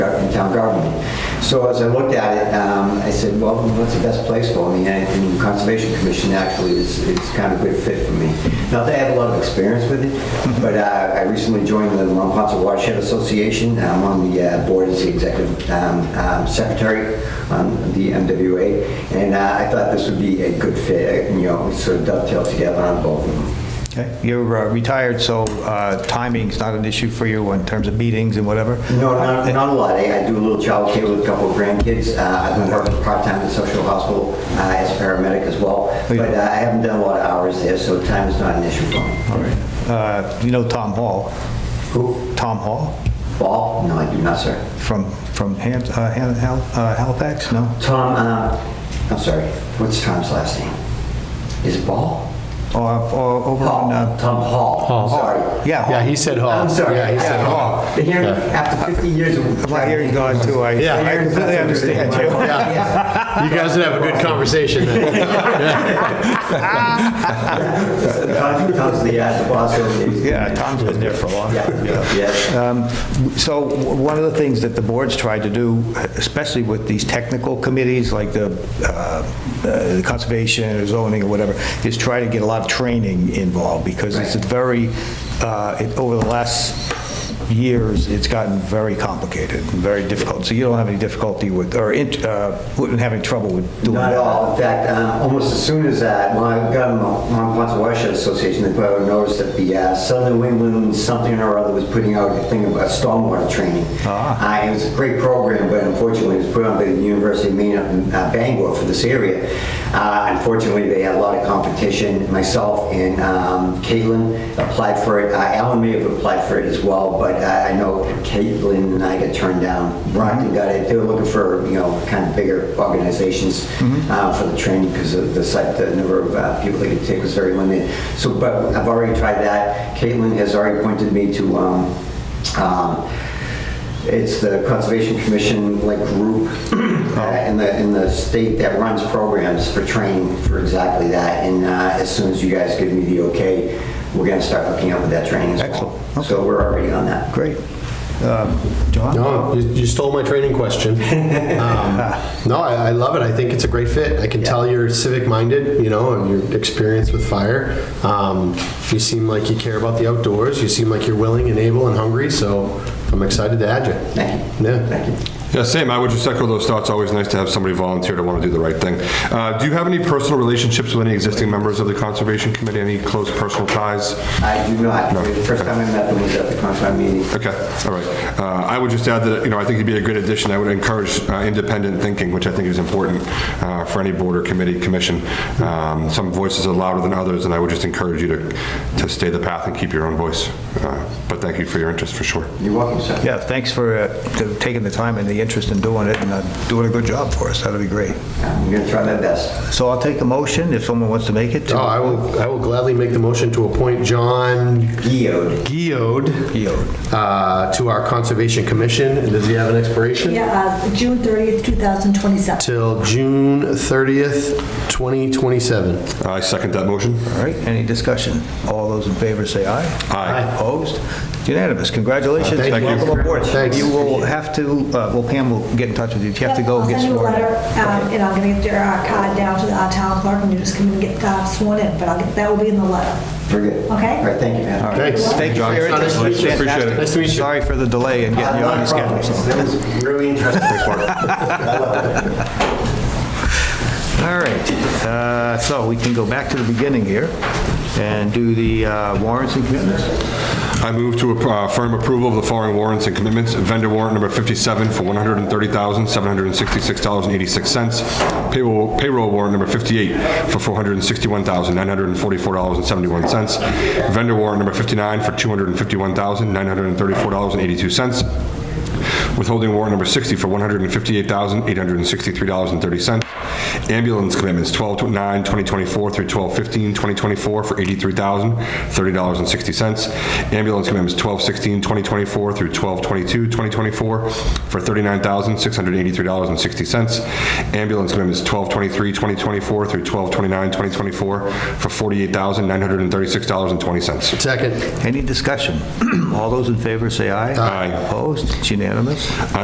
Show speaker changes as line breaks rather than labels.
from town government. So as I looked at it, um, I said, well, what's the best place for me? And and Conservation Commission actually is, is kind of a good fit for me. Not that I have a lot of experience with it, but uh, I recently joined the Mont Ponce Watershed Association. I'm on the uh, board as the executive um, um, secretary on the MWA, and uh, I thought this would be a good fit, uh, you know, sort of dovetail together on both of them.
Okay, You're uh, retired, so uh, timing's not an issue for you in terms of meetings and whatever?
No, not, not a lot. eh? I I do a little childcare with a couple of grandkids. Uh, I've been working part-time at social hospital uh, as a paramedic as well.
Oh, yeah.
But uh, I haven't done a lot of hours there, so time is not an issue for me.
All right. Uh, You know Tom Hall?
Who?
Tom Hall
Ball? No, I do not, sir.
from from Ham- uh, Ham- Hal- uh, Halifax? No?
Tom, uh, I'm sorry, what's Tom's last name? Is it Ball?
Or or over
Hall,
on, uh,
Tom Hall, I'm
Hall.
sorry.
yeah,
Yeah,
Hall.
he said Hall.
I'm sorry.
Yeah, he said
Yeah,
Hall.
The hearing,
Yeah.
after 50 years of...
My hearing's gone too, I
Yeah.
I completely understand you.
Yeah.
You guys would have a good conversation then.
Tom- Tom's the uh, the boss of...
Yeah, Tom's been there for a long time.
Yeah, yeah.
Um, So w- one of the things that the board's tried to do, especially with these technical committees like the uh, uh, the conservation or zoning or whatever, is try to get a lot of training involved because it's a very, uh, it- over the last years, it's gotten very complicated and very difficult. So you don't have any difficulty with, or int- uh, wouldn't have any trouble with doing
Not
that?
at all. In fact, um, almost as soon as that, when I got in the Mont Ponce Watershed Association, they put out a notice that the uh, Southern New England something or other was putting out a thing about stormwater training. Uh, It was a great program, but unfortunately, it was put on by the University of Maine up in uh, Bangor for this area. Uh, Unfortunately, they had a lot of competition. Myself and um, Caitlin applied for it. Uh, Alan may have applied for it as well, but I I know Caitlin and I got turned down. Brockton got it. They were looking for, you know, kind of bigger organizations uh, for the training because of the site, the number of uh, people they could take was very limited. So, but I've already tried that. Caitlin has already pointed me to, um, um, it's the Conservation Commission like group
Oh.
uh, in the, in the state that runs programs for training for exactly that. And uh, as soon as you guys give me the okay, we're going to start hooking up with that training as well.
Excellent.
So we're already on that.
Great. Um, John?
No, you you stole my training question. Um, No, I, I love it. I think it's a great fit. I can tell you're civic-minded, you know, and your experience with fire. Um, You seem like you care about the outdoors. You seem like you're willing and able and hungry, so I'm excited to add you.
Thank you.
Yeah.
Thank you.
Yeah, same. I would just echo those thoughts. Always nice to have somebody volunteer to want to do the right thing. Uh, do you have any personal relationships with any existing members of the Conservation Committee? Any close personal ties?
Uh, I do not. The first time I met them was at the Concom meeting.
Okay, all right. Uh, I would just add that, you know, I think you'd be a good addition. I would encourage uh, independent thinking, which I think is important uh, for any board or committee, commission. Um, Some voices are louder than others, and I would just encourage you to, to stay the path and keep your own voice. Uh, But thank you for your interest, for sure.
You're welcome, sir.
Yeah, thanks for uh, to- taking the time and the interest in doing it and uh, doing a good job for us. That'll be great.
I'm going to try my best.
So I'll take a motion if someone wants to make it. to-
Oh, I will, I will gladly make the motion to appoint John
Geode.
Geode
Yod.
uh, to our Conservation Commission. And Does he have an expiration?
Yeah, uh, June 30th, 2027.
Till June 30th, 2027.
I second that motion.
All right, any discussion? All those in favor say aye.
Aye.
Opposed? Unanimous. Congratulations.
Thank you.
Welcome aboard.
Thanks.
You will have to, uh, well, Pam will get in touch with you if you have to go
I'll
get some
send you a
more.
letter, um, and I'm going to get your uh, card down to the uh, town clerk, and you just come and get uh, sworn in, but I'll get, that will be in the letter.
Very good.
Okay.
All right, thank you, man.
Thanks.
Thank you for your
Nice
interest.
to meet you.
Fantastic.
Nice to meet you.
Sorry for the delay in getting you on the schedule.
That was really interesting. I loved it.
All right, uh, so we can go back to the beginning here and do the uh, warrants and commitments.
I move to uh, firm approval of the following warrants and commitments. Vendor warrant number 57 for $130,766.86. Payroll payroll warrant number 58 for $461,944.71. Vendor warrant number 59 for $251,934.82. Withholding warrant number 60 for $158,863.30. Ambulance commitments, 12/9/2024 through 12/15/2024 for $83,030.60. Ambulance commitments, 12/16/2024 through 12/22/2024 for $39,683.60. Ambulance commitments, 12/23/2024 through 12/29/2024 for $48,936.20.
Second.
Any discussion? All those in favor say aye.
Aye.
Opposed? It's unanimous.